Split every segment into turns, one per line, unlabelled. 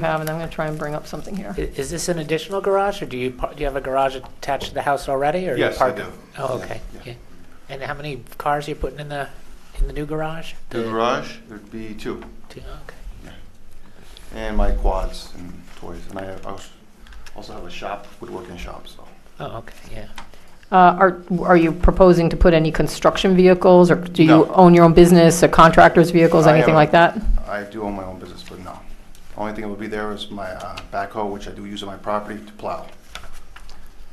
have, and I'm going to try and bring up something here.
I- Is this an additional garage, or do you, par- do you have a garage attached to the house already, or? you
Yes, I
park-
do.
Oh, okay,
Yeah,
yeah. And how many cars you putting in the, in the new garage?
The
The
garage, there'd be two,
two- okay.
and my quads and toys, and I have- I als- also have a shop, woodworking shop, so.
Oh, okay, yeah.
Uh, Are, are you proposing to put any construction vehicles, or do you
No.
own your own business, or contractors' vehicles,
I
anything
own-
like that?
I do own my own business, but no. Only thing that would be there is my uh, backhoe, which I do use on my property to plow,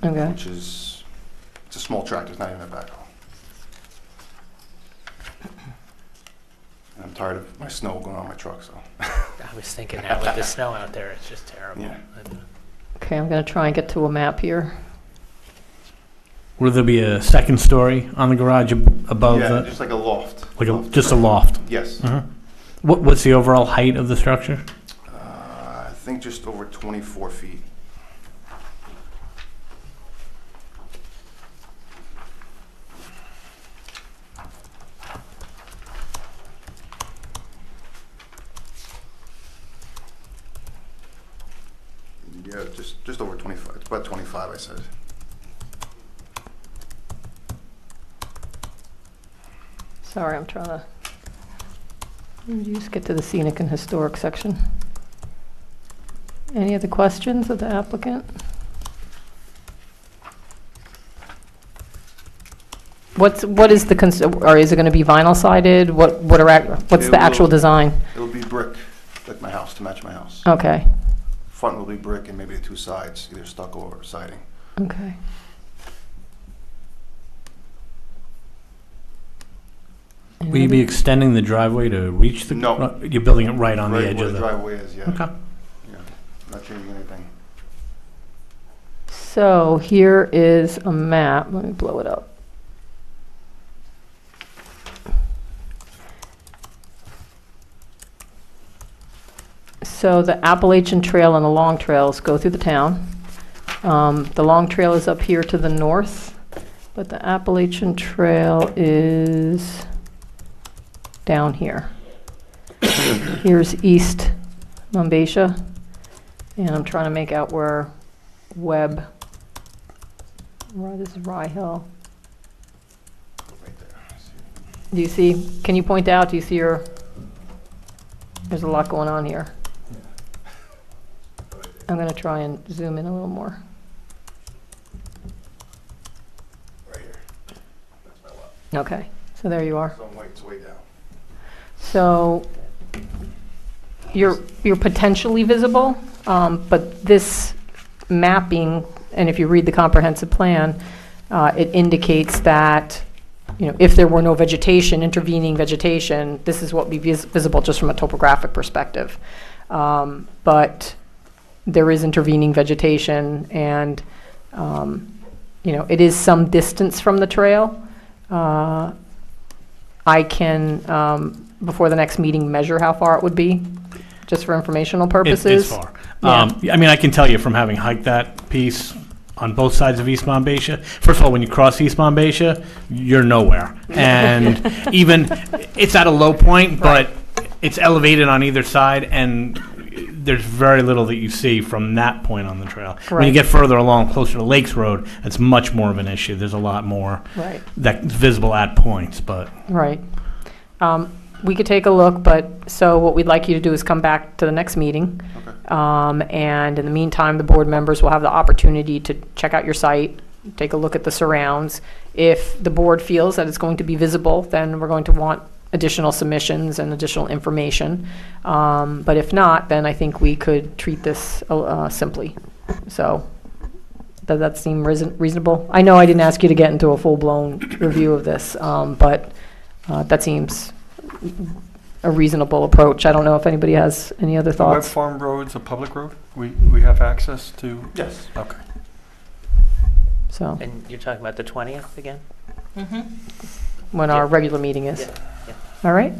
Okay.
which is, it's a small tractor, it's not even a backhoe. And I'm tired of my snow going on my truck, so.
I was thinking that with the snow out there, it's just terrible.
Yeah.
And-
Okay, I'm going to try and get to a map here.
Will there be a second story on the garage ab- above
Yeah,
the,
just like a loft.
like a,
Loft.
just a loft?
Yes. Uh,
Mhm. What, what's the overall height of the structure?
Uh, I think just over 24 feet. Yeah, just, just over 25, it's about 25, I said.
Sorry, I'm trying to, Let me just get to the scenic and historic section. Any other questions of the applicant? What's, what is the, cons- or is it going to be vinyl sided? What, what are, ac- what's
It
the actual
will-
design?
It'll be brick, like my house, to match my house.
Oh.
Okay,
Front will be brick and maybe the two sides, either stucco or siding.
okay.
Will you be extending the driveway to reach the?
No.
gar- You're building it right on the
Right
edge
where
of
the
the?
driveway is, yeah.
Okay.
Yeah, not changing anything.
So here is a map. Let me blow it up. So the Appalachian Trail and the Long Trails go through the town. Um, The Long Trail is up here to the north, but the Appalachian Trail is down here. Here's East Mumbasia, and I'm trying to make out where Webb. Ry- This is Rye Hill.
Right there. See?
Do you see, can you point out, do you see your, there's a lot going on here. I'm going to try and zoom in a little more.
Right here. That's my lot.
Okay, so there you are.
So I'm way, it's way down.
So you're, you're potentially visible, um, but this mapping, and if you read the comprehensive plan, uh, it indicates that, you know, if there were no vegetation, intervening vegetation, this is what would be vis- visible just from a topographic perspective. Um, But there is intervening vegetation, and, um, you know, it is some distance from the trail. Uh, I can, um, before the next meeting, measure how far it would be, just for informational
It's-
purposes.
It's far. Um, I mean, I can tell you from having hiked that piece on both sides of East Monbassia. First of all, when you cross East Monbassia, you're nowhere. And even, it's at a low point, but it's elevated on either side and there's very little that you see from that point on the trail. When
Right.
you get further along, closer to Lakes Road, it's much more of an issue. There's a lot more
Right.
that's visible at points, but
Right. Um, We could take a look, but, so what we'd like you to do is come back to the next meeting.
Okay.
Um, And in the meantime, the board members will have the opportunity to check out your site, take a look at the surrounds. If the board feels that it's going to be visible, then we're going to want additional submissions and additional information. Um, But if not, then I think we could treat this uh, simply. So, does that seem reason- reasonable? I know I didn't ask you to get into a full-blown review of this, um, but uh, that seems a reasonable approach. I don't know if anybody has any other
The Web
thoughts.
Farm Road's a public road? We, we have access to,
Yes.
okay.
So,
And you're talking about the 20th again?
when our regular meeting is.
Yeah, yeah.
All right?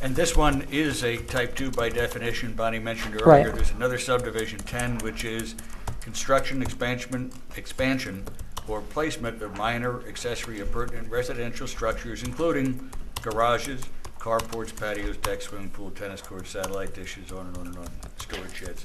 And this one is a type 2 by definition, Bonnie mentioned
Right.
earlier. There's another subdivision, 10, which is construction, expansion, expansion, or placement of minor accessory appurtenant residential structures, including garages, carports, patios, decks, swimming pool, tennis courts, satellite dishes, on and on and on, storage sheds,